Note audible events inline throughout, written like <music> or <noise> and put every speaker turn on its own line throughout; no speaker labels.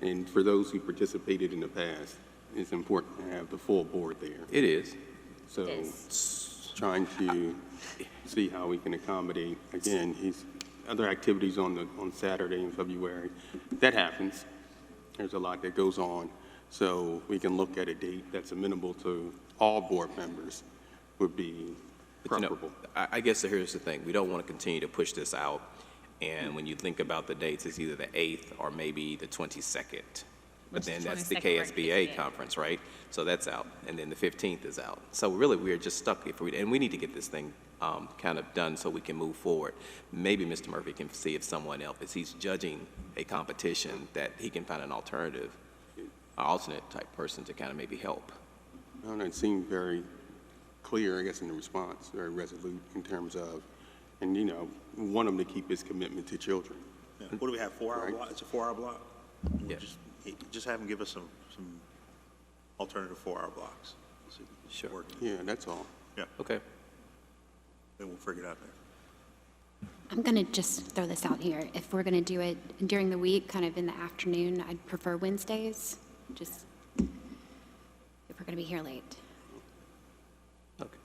And for those who participated in the past, it's important to have the full board there.
It is.
So
Yes.
s- trying to see how we can accommodate, again, his other activities on the, on Saturday in February. That happens. There's a lot that goes on. So we can look at a date that's amenable to all board members would be
But, you know,
preferable.
I, I guess here's the thing, we don't want to continue to push this out. And when you think about the dates, it's either the 8th or maybe the 22nd. But
Which
then
is
that's the
22nd, right,
KSBA
yeah.
conference, right? So that's out, and then the 15th is out. So really, we are just stuck if we, and we need to get this thing um, kind of done so we can move forward. Maybe Mr. Murphy can see if someone else, if he's judging a competition, that he can find an alternative, an alternate type person to kind of maybe help.
I don't know, it seemed very clear, I guess, in the response, very resolute in terms of, and you know, want him to keep his commitment to children.
Yeah. What do we have, four-hour
Right.
block? It's a four-hour block? We'll
Yeah.
just- eh, Just have them give us some, some alternative four-hour blocks. See if we can
Sure.
work it.
Yeah, that's all.
Yeah,
Okay.
then we'll figure it out there.
I'm going to just throw this out here. If we're going to do it during the week, kind of in the afternoon, I'd prefer Wednesdays, just if we're going to be here late.
Okay.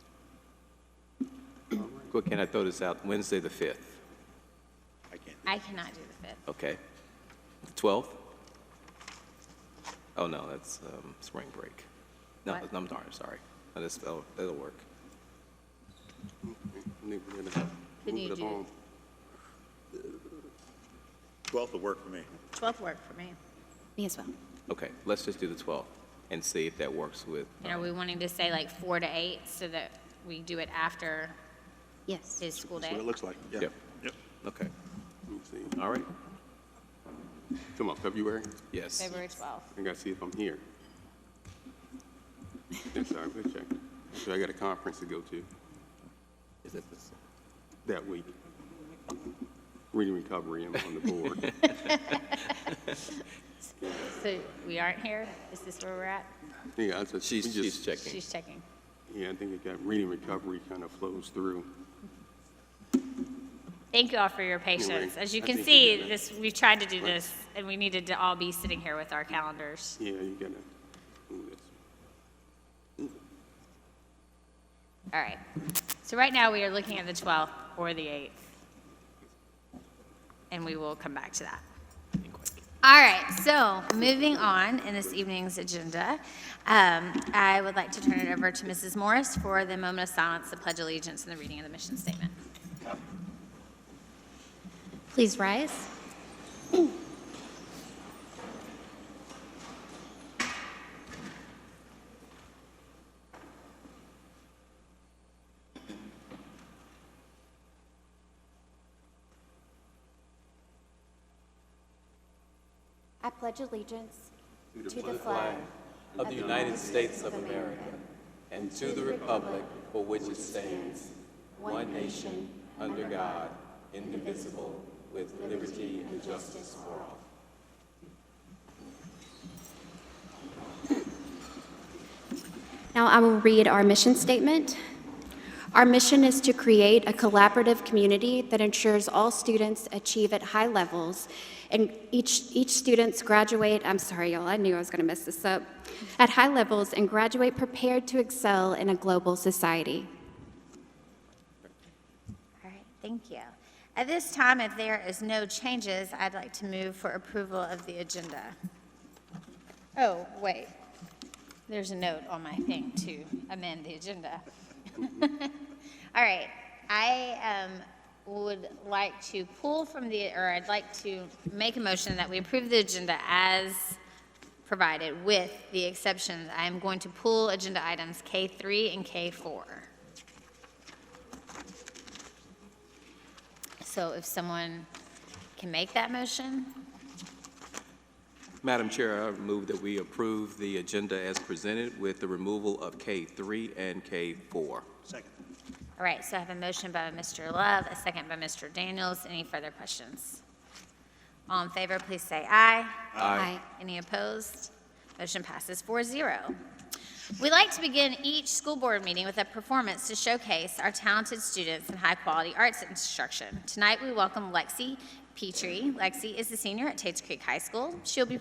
Quick, can I throw this out? Wednesday, the 5th,
I can't.
I cannot do the 5th.
okay? The 12th? Oh, no, that's um, spring break. No,
What?
I'm darn, sorry. No, that's- That'll that'll work.
I think we're gonna
Then
move
you
it
do-
along.
12th will work for me.
12th worked for me.
Me as well.
Okay, let's just do the 12th and see if that works with,
And are we wanting to say like 4 to 8 so that we do it after
Yes.
his school
That's what
day?
it looks like, yeah.
Yep.
Yep.
okay,
Let me see.
all right,
Come on, February?
yes.
February 12th.
I gotta see if I'm here. I'm sorry, let me check. So I got a conference to go to
Is it this-
that week. Reading recovery, I'm on the board.
So we aren't here? Is this where we're at?
Yeah, that's what. we
She's, she's
just-
checking.
She's checking.
Yeah, I think it got, reading recovery kind of flows through.
Thank you all for your patience.
Anyway,
As you
I
can
think
see,
we did it.
this, we've tried to do this, and we needed to all be sitting here with our calendars.
Yeah, you gotta, ooh, that's,
All right. So right now, we are looking at the 12th or the 8th. And we will come back to that. All right, so moving on in this evening's agenda, um, I would like to turn it over to Mrs. Morris for the moment of silence, the pledge of allegiance, and the reading of the mission statement.
Please rise. I pledge allegiance to the flag
Of the United States of America and to the republic for which it stands, one nation, under God, indivisible, with liberty and justice for all.
Now I will read our mission statement. Our mission is to create a collaborative community that ensures all students achieve at high levels and each, each students graduate, I'm sorry, y'all, I knew I was going to mess this up, at high levels and graduate prepared to excel in a global society.
All right, thank you. At this time, if there is no changes, I'd like to move for approval of the agenda. Oh, wait, there's a note on my thing to amend the agenda. <laughs> All right, I um, would like to pull from the, or I'd like to make a motion that we approve the agenda as provided with the exceptions. I am going to pull agenda items K3 and K4. So if someone can make that motion,
Madam Chair, I move that we approve the agenda as presented with the removal of K3 and K4.
Second.
all right, so I have a motion by Mr. Love, a second by Mr. Daniels. Any further questions? All in favor, please say aye.
Aye.
Any opposed? Motion passes 4-0. We like to begin each school board meeting with a performance to showcase our talented students and high-quality arts instruction. Tonight, we welcome Lexi Petrie. Lexi is the senior at Tates Creek High School. She'll be